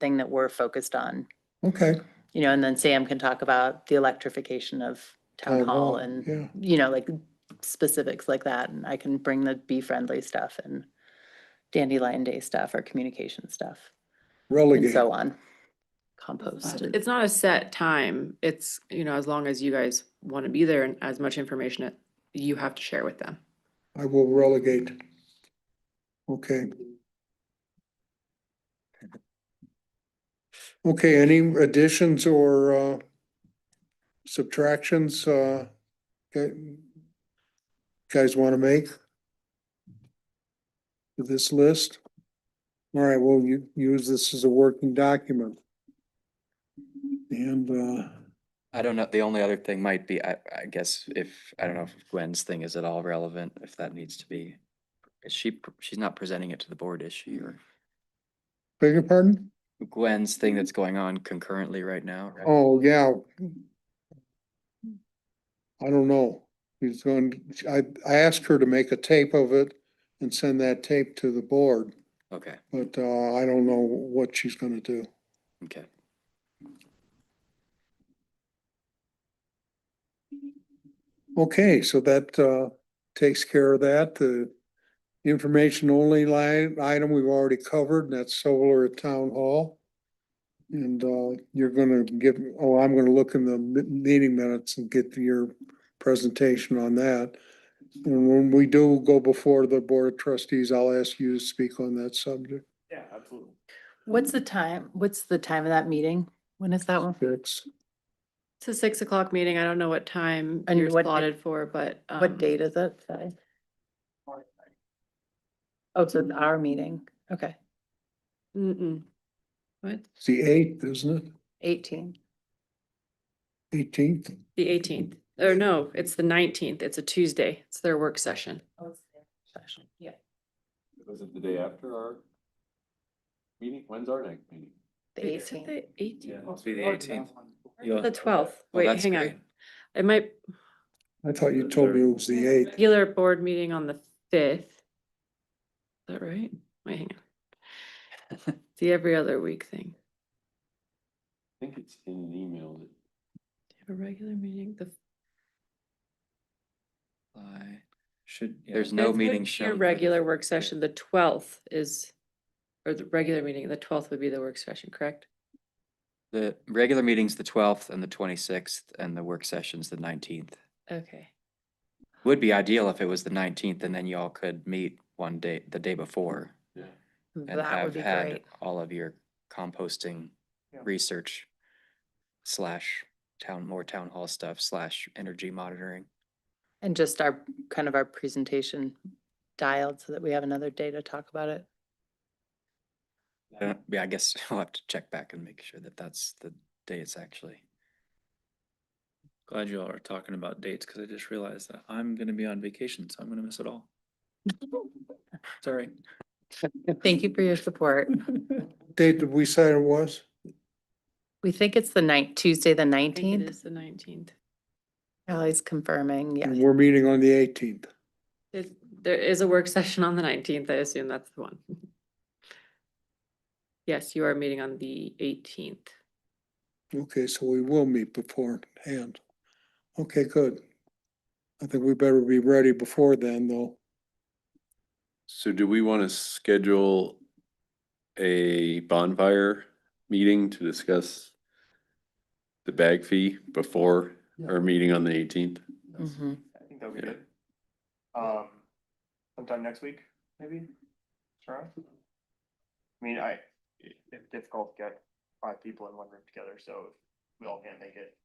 thing that we're focused on. Okay. You know, and then Sam can talk about the electrification of town Town hall hall, Oh, yeah. and, you know, like specifics like that. And I can bring the bee friendly stuff and dandelion day stuff or communication stuff and Relegate. so on. It's Compost. not- and- It's not a set time. It's, you know, as long as you guys want to be there and as much information that you have to share with them. I will relegate. Okay. Okay, any additions or uh, subtractions uh, gu- guys want to make? To this list? All right, we'll u- use this as a working document. And uh, I don't know, the only other thing might be, I, I guess if, I don't know if Gwen's thing is at all relevant, if that needs to be. Is she, pr- she's not presenting it to the board, is she, or beg your pardon? Gwen's thing that's going on concurrently right now? right? Oh, yeah. I don't know. He's going, I, I asked her to make a tape of it and send that tape to the board, Okay, but, uh, I don't know what she's gonna do. okay. Okay, so that, uh, takes care of that. The information only line, item we've already covered, and that's solar at town hall. And, uh, you're gonna give, oh, I'm gonna look in the mi- meeting minutes and get your presentation on that. And when we do go before the board of trustees, I'll ask you to speak on that subject. Yeah, absolutely. What's the time? What's the time of that meeting? When is that one? Fix. It's a six o'clock meeting. I don't know what time And you're what day- slotted for, but. What um, date is it? Sorry. Oh, so it's our meeting. Okay, Mm-mm. What? It's the eighth, isn't it? eighteen. Eighteenth? The eighteenth, or no, it's the nineteenth. It's a Tuesday. It's their work session. Oh, Yeah. Was it the day after our meeting? When's our next meeting? The eighteenth. Eighteenth. It'll be the 18th. You'll- The twelfth. Well, Wait, Oh, that's hang great. on. It might, I thought you told me it was the eighth. regular board meeting on the fifth. Is that right? Wait, hang on. The every other week thing. I think it's in an email. that- A regular meeting, the. I Should, there's no meeting shown. Your for the regular fifth, work yeah. session, the twelfth is, or the regular meeting, the twelfth would be the work session, correct? The regular meeting's the twelfth and the twenty-sixth, and the work session's the nineteenth. Okay. Would be ideal if it was the nineteenth, and then y'all could meet one day, the day before, Yeah. and That would have be had great. all of your composting Yeah. research slash town, more town hall stuff slash energy monitoring. And just our, kind of our presentation dialed so that we have another day to talk about it. I don't- Uh, Yeah, I guess I'll have to check back and make sure that that's the day it's actually. Glad you all are talking about dates because I just realized that I'm gonna be on vacation, so I'm gonna miss it all. Sorry. Thank you for your support. Date that we said it was? We think it's the night, Tuesday, the I think it nineteenth. is the nineteenth. Ally's confirming, And yes. We're meeting on the eighteenth. There is a work session on the nineteenth, I assume that's the one. Yes, you are meeting on the eighteenth. Okay, so we will meet beforehand. Okay, good. I think we better be ready before then, though. So do we want to schedule a bonfire meeting to discuss the bag fee before our meeting on the eighteenth? Mm-hmm. Mhm. I think that'll be Yeah. good. Um, sometime next week, maybe, Sure. I mean, I, it- it's difficult to get five people in one room together, so if we all can't make it.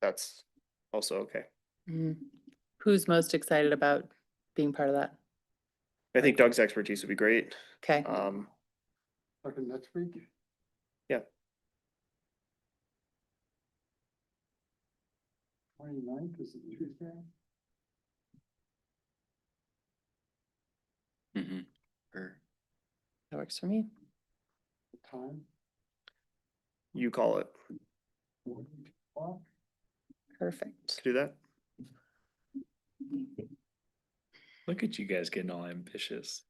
That's also okay. Mhm. Who's most excited about being part of that? I think Doug's expertise would be great, Okay, Uh, um, Talking next week? Yeah. Twenty-ninth is it Tuesday? Mhm. Or that works for me. Time? you call it, Perfect. to do that. Look at you guys getting all ambitious.